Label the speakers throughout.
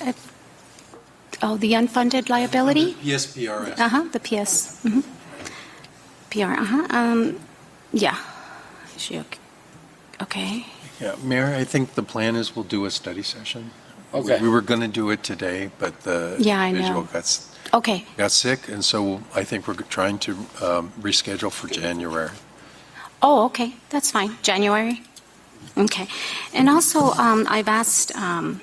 Speaker 1: uh, oh, the unfunded liability?
Speaker 2: PSPRS.
Speaker 1: Uh-huh, the PS, mhm. PR, uh-huh, um, yeah. Is she okay? Okay.
Speaker 3: Yeah, Mayor, I think the plan is we'll do a study session.
Speaker 4: Okay.
Speaker 3: We were going to do it today, but the
Speaker 1: Yeah, I
Speaker 3: individual
Speaker 1: know.
Speaker 3: got, s-
Speaker 1: Okay,
Speaker 3: got sick, and so I think we're trying to um, reschedule for January.
Speaker 1: oh, okay, that's fine, January? Okay. And also, um, I've asked, um,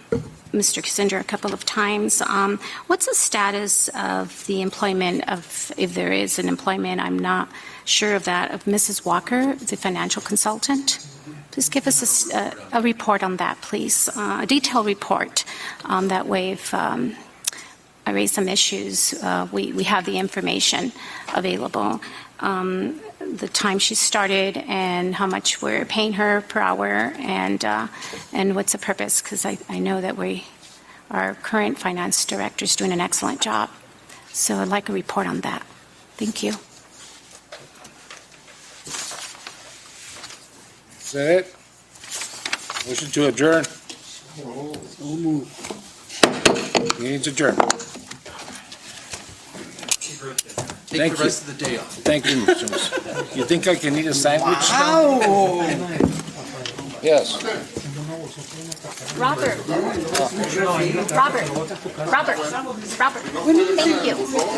Speaker 1: Mr. Kissinger a couple of times, um, what's the status of the employment of, if there is an employment, I'm not sure of that, of Mrs. Walker, the financial consultant? Please give us a s- a, a report on that, please, uh, a detailed report. Um, That way, if um, I raise some issues, uh, we, we have the information available. Um, The time she started and how much we're paying her per hour and, uh, and what's the purpose? Because I, I know that we, our current finance director is doing an excellent job. So I'd like a report on that. Thank you.
Speaker 4: Is that it? Motion to adjourn. Meeting's adjourned.
Speaker 2: Take
Speaker 4: Thank
Speaker 2: the
Speaker 4: you.
Speaker 2: rest of the day off.
Speaker 4: Thank you, Mr. Moose. You think I can eat a sandwich? Yes.
Speaker 1: Robert, Robert, Robert, Robert, thank you.